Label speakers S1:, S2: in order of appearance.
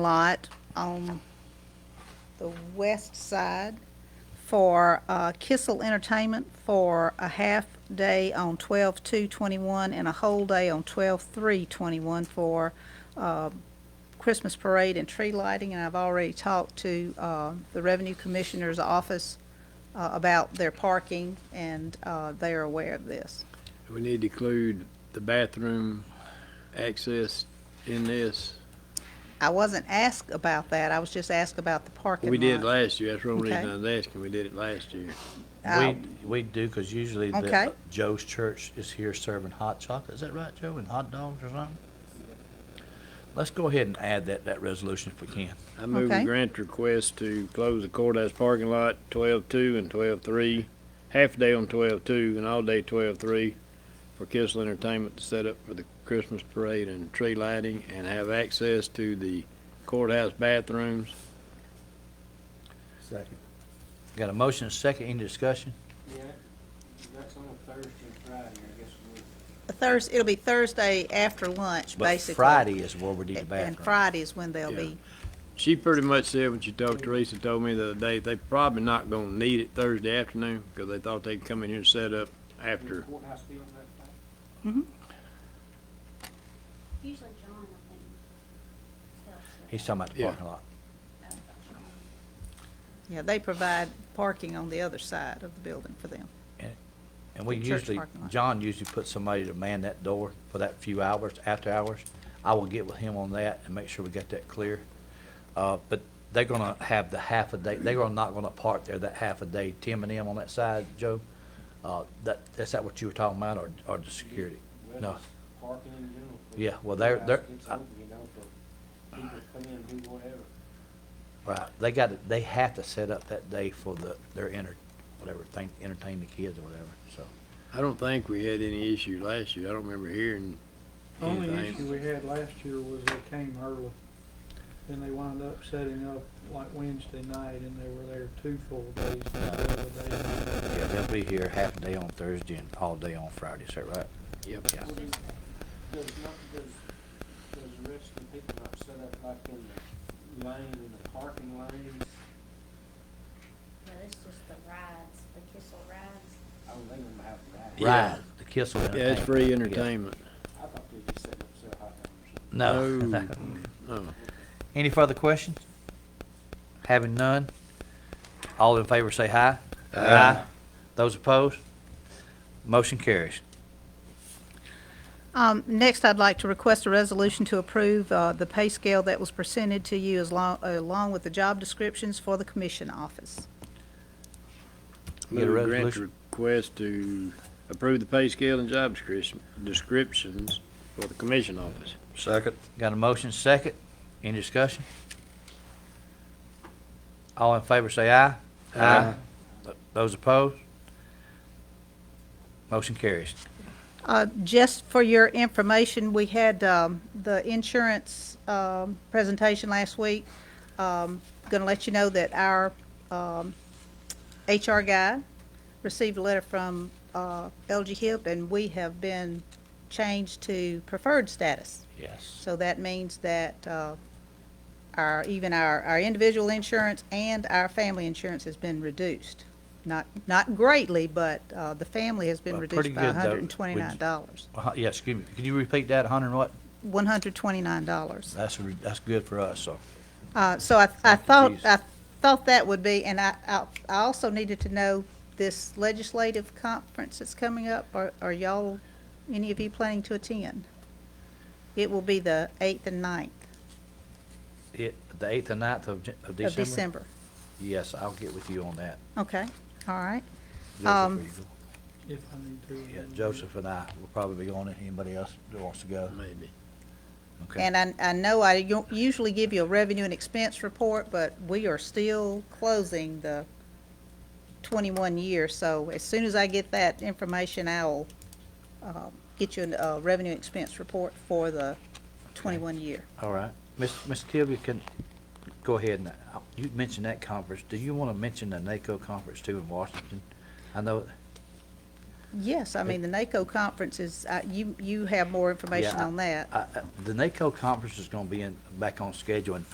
S1: lot on the west side for uh, Kissel Entertainment for a half day on 12/2/21 and a whole day on 12/3/21 for uh, Christmas parade and tree lighting. And I've already talked to uh, the Revenue Commissioner's office uh, about their parking, and uh, they are aware of this.
S2: We need to include the bathroom access in this.
S1: I wasn't asked about that. I was just asked about the parking lot.
S2: We did last year, that's one reason
S1: Okay.
S2: I was asking, we did it last year.
S1: I'll-
S3: We, we do, because usually
S1: Okay.
S3: the, Joe's Church is here serving hot chocolate, is that right, Joe, and hot dogs or something? Let's go ahead and add that, that resolution if we can.
S2: I move
S1: Okay.
S2: we grant request to close the courthouse parking lot twelve-two and twelve-three, half day on twelve-two and all day twelve-three for Kissel Entertainment to set up for the Christmas parade and tree lighting and have access to the courthouse bathrooms.
S3: Second. Got a motion, and a second, any discussion?
S4: Yeah, that's on a Thursday, Friday, I guess we'll.
S1: Thurs, it'll be Thursday after lunch, basically.
S3: But Friday is where we need the
S1: And
S3: bathroom.
S1: Friday is when they'll be,
S2: She pretty much said when she talked, Teresa told me the other day, they probably not gonna need it Thursday afternoon, cause they thought they'd come in here and set up after.
S4: Courthouse be on that thing?
S5: Usually John, I think. helps with
S3: He's talking about the
S2: Yeah.
S3: parking lot.
S5: that.
S1: yeah, they provide parking on the other side of the building for them.
S3: And we
S1: The church
S3: usually,
S1: parking lot.
S3: John usually puts somebody to man that door for that few hours, after hours. I will get with him on that and make sure we get that clear. Uh, but they're gonna have the half a day, they're gonna- not gonna park there that half a day, Tim and them on that side, Joe. Uh, that, is that what you were talking about, or, or the security?
S4: Well,
S3: No,
S4: just Parking in general. for
S3: Yeah, well, they're-
S4: courthouse
S3: they're-
S4: gets
S3: I-
S4: open, you know, for people to come in and do whatever.
S3: right, they got, they have to set up that day for the, their enter, whatever, thing, entertain the kids or whatever, so.
S2: I don't think we had any issue last year. I don't remember hearing
S6: Only issue
S2: anything.
S6: we had last year was they came early, then they wound up setting up like Wednesday night, and they were there two full days, not the other day.
S3: Yeah, they'll be here half a day on Thursday and all day on Friday, is that right?
S2: Yep.
S3: Yeah.
S4: Well, Does does not, does, does the rest of the people not set up like in the lane, in the parking lanes?
S5: But it's just the rides, the Kissel rides.
S4: I don't think we have that.
S2: Yeah.
S3: Right, the Kissel
S2: Yeah,
S3: Entertainment.
S2: it's free
S3: Yeah.
S2: entertainment.
S4: I thought they just set up so hot dogs.
S3: No.
S2: No. Oh,
S3: Any further questions? Having none, all in favor say aye. Aye. Those opposed? Motion carries.
S1: Um, next, I'd like to request a resolution to approve, uh, the pay scale that was presented to you as long, along with the job descriptions for the commission office.
S3: Get a
S2: move grant
S3: resolution.
S2: request to approve the pay scale and job description, descriptions for the commission office.
S3: Second. Got a motion, second. Any discussion? All in favor say aye.
S2: Aye.
S3: Th- Those opposed? Motion carries.
S1: Uh, Just for your information, we had um, the insurance um, presentation last week. Um, Going to let you know that our um, HR guy received a letter from uh, LG HIP, and we have been changed to preferred status.
S3: Yes.
S1: So that means that uh, our, even our, our individual insurance and our family insurance has been reduced. Not, not greatly, but uh, the family has been
S3: Well,
S1: reduced
S3: pretty
S1: by
S3: good, though.
S1: $129.
S3: Uh, Yeah, excuse me. Could you repeat that, hundred and what?
S1: $129.
S3: That's, that's good for us, so.
S1: Uh, So I, I thought,
S3: geez.
S1: I thought that would be, and I, I I also needed to know this legislative conference that's coming up, are are y'all, any of you planning to attend? It will be the 8th and 9th
S3: It, the eighth and ninth of, Jan- of
S1: of
S3: December?
S1: December.
S3: Yes, I'll get with you on that.
S1: Okay, all right.
S3: Joseph,
S1: Um,
S3: will you go?
S6: If I need to.
S3: Yeah, Joseph and I will probably be on it. Anybody else that wants to go?
S2: Maybe.
S3: Okay.
S1: And I, I know I u- usually give you a revenue and expense report, but we are still closing the twenty-one year, so as soon as I get that information, I'll, uh, get you a revenue and expense report for the twenty-one year.
S3: All right. Ms. Ms. Tilby, can, go ahead and, uh, you mentioned that conference. Do you want to mention the NACO conference too in Washington? I know,
S1: Yes, I mean, the NACO conference is, uh, you, you have more information
S3: I-
S1: on that.
S3: I, I- the NACO conference is going to be in, back on schedule in